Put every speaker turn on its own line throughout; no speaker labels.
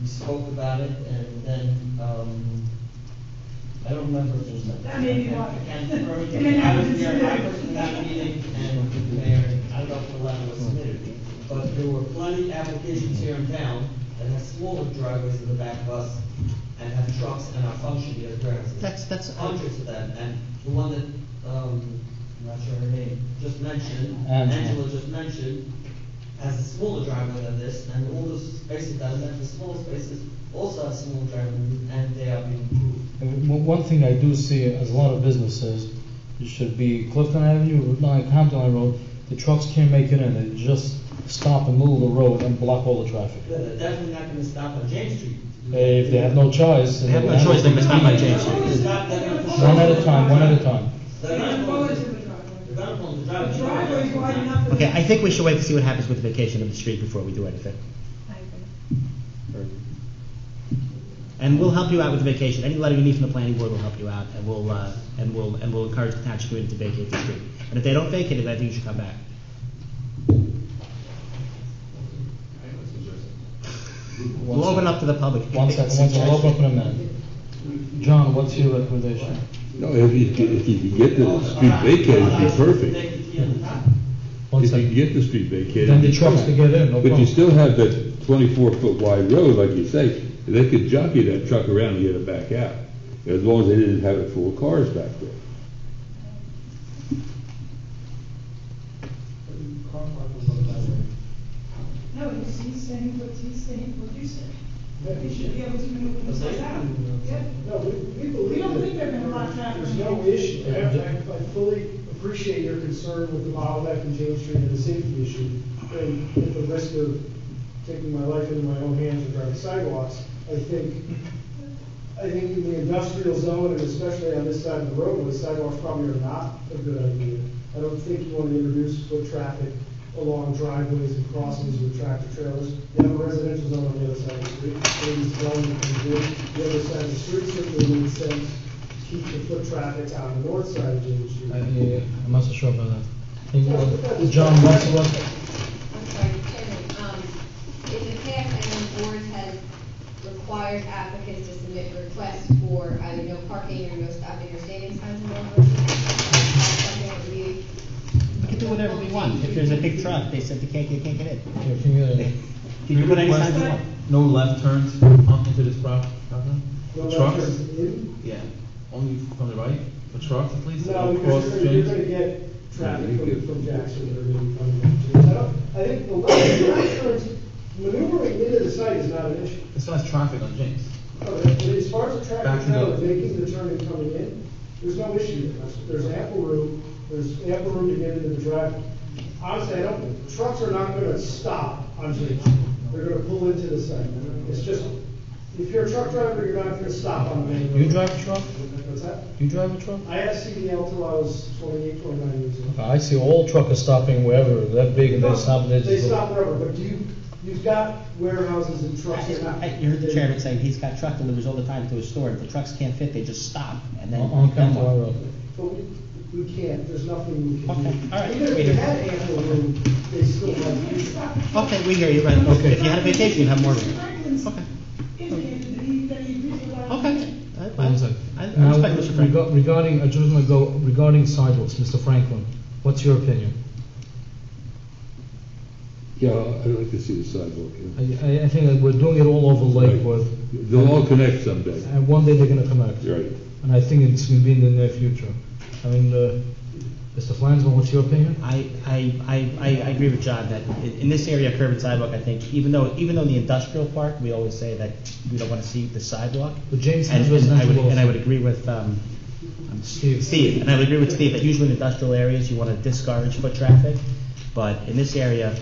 we spoke about it, and then, um, I don't remember if there's.
That may be why.
I can't remember.
It may not
I was
have been
there, I
submitted.
was in that meeting, and the mayor, I don't know if the letter was submitted, but there were plenty of applications here in town that have smaller driveways in the back of us, and have trucks and are functioning as warehouses.
That's- that's-
Hundreds of them, and the one that, um, I'm not sure her name, just mentioned,
Angela.
Angela just mentioned, has a smaller driveway than this, and all the spaces that are left, the smaller spaces, also have small driveways, and they are being improved.
And One one thing I do see as a lot of businesses, it should be Clifton Avenue, Route 9, Compton Line Road, the trucks can't make it in, they just stop in the middle of the road and block all the traffic.
They're they're definitely not gonna stop on James Street.
They- If they have no choice.
They have no choice, they must not by James Street.
One at a time, one at a time.
They're not
Go
going
into
to,
the driveway.
they're not going to
The
drive.
driveway is wide enough. for-
Okay, I think we should wait to see what happens with the vacation of the street before we do anything. And we'll help you out with the vacation. Any letter you need from the planning board will help you out, and we'll, uh, and we'll, and we'll encourage the township community to vacate the street. And if they don't vacate it, I think you should come back. We'll open up to the public.
One second, one second, we'll open up in a minute. John, what's your recommendation?
No, if you, can- if you can get the street vacated, it'd be perfect.
One
If you can
second.
get the street vacated.
Then the
it'd be
trucks
fine.
can get in, no
But
problem.
you still have that twenty-four foot wide road, like you say, they could jockey that truck around and get it back out, as long as they didn't have it full of cars back there.
No, he's, he's saying what, he's saying what you said. We should be able to maneuver this out. Yeah.
No, we, we believe.
We don't
that
think there've been a lot of traffic.
There's no issue. I, I- I fully appreciate your concern with the bottleneck in James Street and the safety issue. And at the risk of taking my life into my own hands regarding sidewalks, I think, I think in the industrial zone and especially on this side of the roadway, sidewalks probably are not a good idea. I don't think you want to introduce foot traffic along driveways and crossings with tractor trailers. You have a residential zone on the other side of the street, maybe it's zone you can do. The other side of the street certainly makes sense, keep the foot traffic on the north side of James Street.
I- Uh, yeah, I'm not so sure about that. I think, uh, John, what's, what,
I'm sorry, Chairman, um, in the past, I know boards has required applicants to submit requests for either no parking or no stopping or standing signs in Norwood. Something that we-
We can do whatever we want. If there's a big truck, they said they can't, they can't get in.
your community?
You can put any signs you want.
No left turns on into this prop- property?
No
Trucks?
left turns in?
Yeah. Only from the right, for trucks at least?
No,
or
because
cross
you're, you're
streets?
gonna get traffic
Yeah, you
from,
could-
from Jackson, they're gonna be coming up to you. I don't, I think the left, the left turns, maneuvering into the site is not an issue.
As far as traffic on James.
Oh, But as far as the traffic
Backing
trail,
up.
making the turn and coming in, there's no issue. There's there's ample room, there's ample room to get into the driveway. Honestly, I don't, trucks are not gonna stop on James. Street. They're gonna pull into the site. It's just, if you're a truck driver, you're not gonna stop on the main road.
You drive a truck?
What's that?
You drive a truck?
I had CDL till I was 28, 29 years old.
I see all truckers stopping wherever, they're big and they stop, they just.
They stop wherever, but you, you've got warehouses and trucks that are not.
I- You heard the chairman saying he's got truck delivers all the time to his store. If the trucks can't fit, they just stop and then.
On on Camp Rock Road.
But we, we can't, there's nothing we can do.
Okay, all right.
Even if we had ample room, they still have to use it.
Okay, we hear you, right, okay. If you had a vacation, you'd have more room.
Franklin's
Okay.
indicated that he, that he realized.
Okay. I- I-
One second.
I I
Now,
respect Mr. Frank.
rega- Regarding, I just want to go, regarding sidewalks, Mr. Franklin, what's your opinion?
Yeah, I'd like to see the sidewalk. yeah.
I, I- I think that we're doing it all over Lakewood,
They'll all connect someday,
and one day they're gonna connect.
right?
And I think it's gonna be in the near future. I mean, uh, Mr. Flansman, what's your opinion?
I, I, I, I I agree with John that in, in this area, curb and sidewalk, I think, even though, even though in the industrial park, we always say that we don't wanna see the sidewalk.
But James
And and I
has
would,
residential
and I
also.
would agree with, um, um,
Steve.
Steve, and I would agree with Steve, that usually in industrial areas, you wanna discourage foot traffic, but in this area,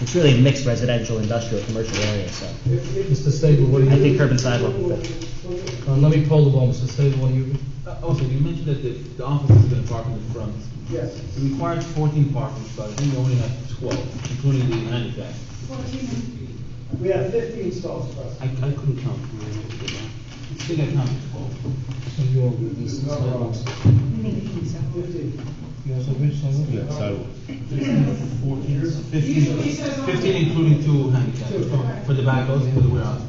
it's really a mixed residential, industrial, commercial area, so.
If- if-
Mr. Stable, what do you?
I think curb and sidewalk would fit.
Uh, Let me poll the ball, Mr. Stable, what do you?
Uh, Also, you mentioned that the, the office is gonna park in the front.
Yes.
It requires fourteen parking spots, I think you only have twelve, including the handicap.
Fourteen and-
We have fifteen stalls for us.
I, I couldn't count. I think I counted twelve.
You all with this sidewalks.
Fifteen.
You also agree, sidewalks?
Yeah, sidewalk.
Fourteen,
Here's-
fifteen,
Usually it says on-
fifteen including two handicap, for the back doors, for the warehouse.